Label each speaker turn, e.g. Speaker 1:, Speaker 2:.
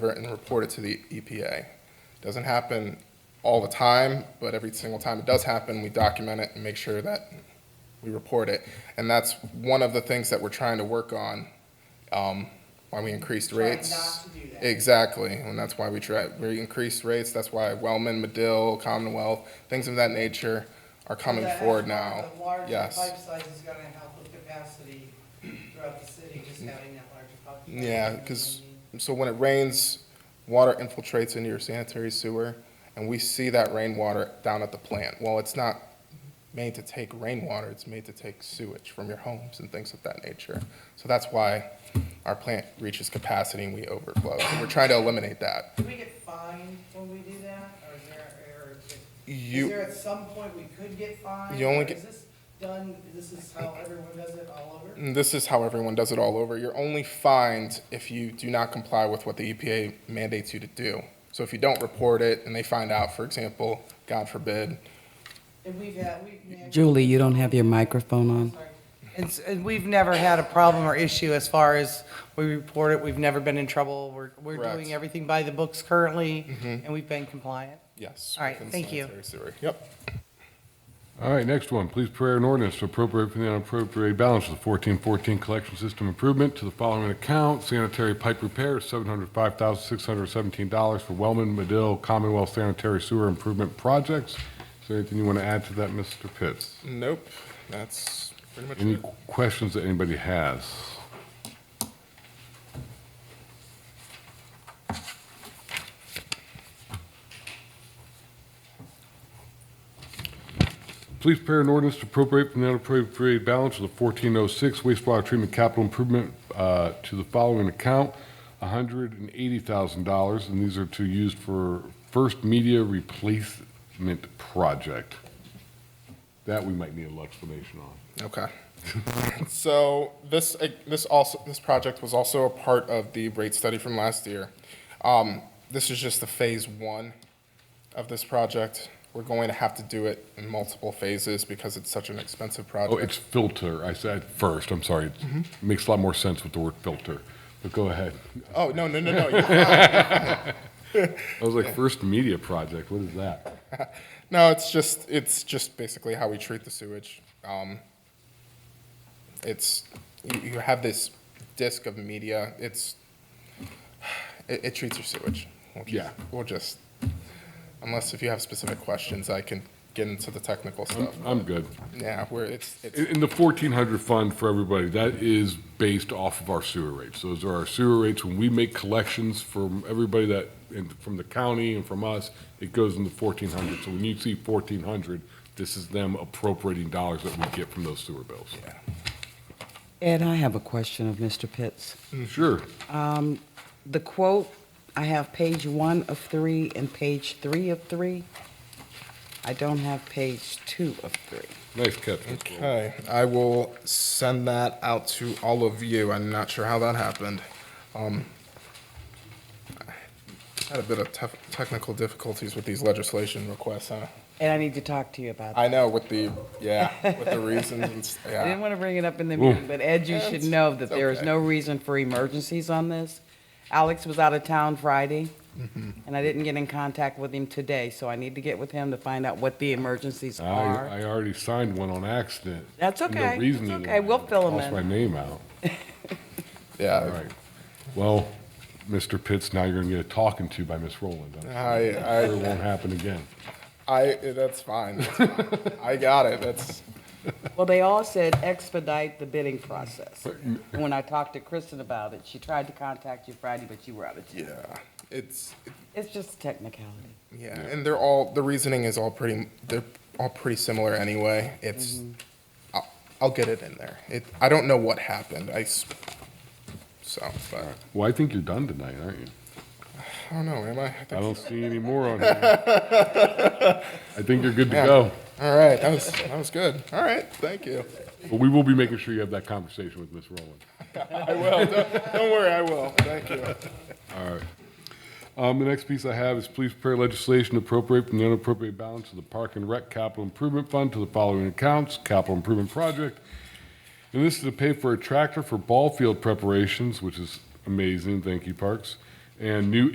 Speaker 1: it and report it to the EPA. Doesn't happen all the time, but every single time it does happen, we document it and make sure that we report it. And that's one of the things that we're trying to work on, um, why we increased
Speaker 2: Try
Speaker 1: rates.
Speaker 2: not to do that.
Speaker 1: Exactly, and that's why we try, we increased rates, that's why Wellman, Medill, Commonwealth, things of that nature are coming
Speaker 2: That
Speaker 1: forward
Speaker 2: extra-
Speaker 1: now.
Speaker 2: The larger
Speaker 1: Yes.
Speaker 2: pipe size is gonna help with capacity throughout the city, just having that larger pipe. size,
Speaker 1: Mm. Yeah,
Speaker 2: you know
Speaker 1: because,
Speaker 2: what I mean?
Speaker 1: so when it rains, water infiltrates into your sanitary sewer, and we see that rainwater down at the plant. Well, it's not made to take rainwater, it's made to take sewage from your homes and things of that nature. So that's why our plant reaches capacity and we overflow. And We're trying to eliminate that.
Speaker 2: Do we get fined when we do that, or is there, or is it- is there
Speaker 1: You,
Speaker 2: at some point we could get fined?
Speaker 1: You only
Speaker 2: or
Speaker 1: get-
Speaker 2: Is this done, this is how everyone does it all over?
Speaker 1: and this is how everyone does it all over. You're only fined if you do not comply with what the EPA mandates you to do. So if you don't report it and they find out, for example, God forbid,
Speaker 2: And we've had, we've.
Speaker 3: Julie, you don't have your microphone on.
Speaker 2: And, s- and we've never had a problem or issue as far as we report it, we've never been in trouble, we're, we're
Speaker 1: Correct. Mm-hmm.
Speaker 2: doing everything by the books currently, and we've been compliant.
Speaker 1: Yes.
Speaker 2: All right,
Speaker 1: within
Speaker 2: thank you.
Speaker 1: sanitary sewer. Yep.
Speaker 4: All right, next one, please prayer an ordinance to appropriate from the unappropriated balance of the fourteen fourteen collection system improvement to the following account, sanitary pipe repair, seven hundred five thousand six hundred seventeen dollars for Wellman, Medill, Commonwealth Sanitary Sewer Improvement Projects. Is there anything you want to add to that, Mr. Pitts?
Speaker 1: Nope, that's pretty much
Speaker 4: Any
Speaker 1: it.
Speaker 4: questions that anybody has? Please prepare an ordinance to appropriate from the unappropriated balance of the fourteen oh six wastewater treatment capital improvement uh, to the following account, hundred and eighty thousand dollars, and these are to use for first media replacement project. That we might need a little explanation on.
Speaker 1: Okay. So this, uh, this also, this project was also a part of the rate study from last year. Um, This is just the phase one of this project. We're going to have to do it in multiple phases because it's such an expensive
Speaker 4: Oh,
Speaker 1: project.
Speaker 4: it's filter. I said first. I'm sorry. It makes a lot more sense with the word filter. But go ahead.
Speaker 1: Oh, no, no, no, no, you're
Speaker 4: I was like, first media project. What is that?
Speaker 1: No, it's just it's just basically how we treat the sewage. Um, it's you, you have this disc of media. It's it, it treats your sewage. We'll just,
Speaker 4: Yeah.
Speaker 1: We'll just unless if you have specific questions, I can get into the technical
Speaker 4: I'm,
Speaker 1: stuff.
Speaker 4: I'm good.
Speaker 1: yeah, where it's it's
Speaker 4: In, in the 1400 fund for everybody, that is based off of our sewer rates. Those are our sewer rates. When we make collections from everybody that, and from the county and from us, it goes in the 1400. So when you see 1400, this is them appropriating dollars that we get from those sewer bills.
Speaker 3: Ed, I have a question of Mr. Pitts.
Speaker 4: Sure.
Speaker 3: The quote, I have page one of three and page three of three. I don't have page two of three.
Speaker 4: Nice catch. Mr. Wilson.
Speaker 1: okay. I will send that out to all of you. I'm not sure how that happened. Um, I had a bit of tef- technical difficulties with these legislation requests, huh?
Speaker 3: And I need to talk to you about that.
Speaker 1: I know with the yeah with the reasons and s-
Speaker 3: I didn't
Speaker 1: yeah
Speaker 3: want to bring it up in the
Speaker 4: Well-
Speaker 3: meeting, but Ed, you should
Speaker 1: It's-
Speaker 3: know that
Speaker 1: it's
Speaker 3: there is
Speaker 1: okay.
Speaker 3: no reason for emergencies on this. Alex was out of town Friday, and I didn't get in contact with him today, so I need to get with him to find out what the emergencies are.
Speaker 4: I, I already signed one on accident.
Speaker 3: That's
Speaker 4: And the
Speaker 3: okay.
Speaker 4: reasoning
Speaker 3: That's okay.
Speaker 4: was
Speaker 3: We'll fill 'em
Speaker 4: cross
Speaker 3: in.
Speaker 4: my name out. All
Speaker 1: yeah.
Speaker 4: right. Well, Mr. Pitts, now you're going to get a talking to by Miss Rowland. I'm sure It
Speaker 1: I
Speaker 4: won't happen again.
Speaker 1: I I that's fine. That's fine. I got it. That's
Speaker 3: Well, they all said expedite the bidding process. When I talked to Kristen about it, she tried to contact you Friday, but you were out of town.
Speaker 1: yeah. It's
Speaker 3: It's just technicality.
Speaker 1: yeah, and they're all the reasoning is all pretty. They're all pretty similar anyway. It's I'll, I'll get it in there. It I don't know what happened. I s- so but
Speaker 4: Well, I think you're done tonight, aren't you?
Speaker 1: I don't know. Am I? I think-
Speaker 4: I don't see any more on here. I think you're good to
Speaker 1: Yeah.
Speaker 4: go.
Speaker 1: all right. That was that was good. All right. Thank you.
Speaker 4: But we will be making sure you have that conversation with Miss Rowland.
Speaker 1: I will. Don't, don't worry. I will. Thank you.
Speaker 4: Um, the next piece I have is please prepare legislation to appropriate from the unappropriated balance of the Park and Rec Capital Improvement Fund to the following accounts, capital improvement project. And this is to pay for a tractor for ball field preparations, which is amazing, thank you, Parks, and new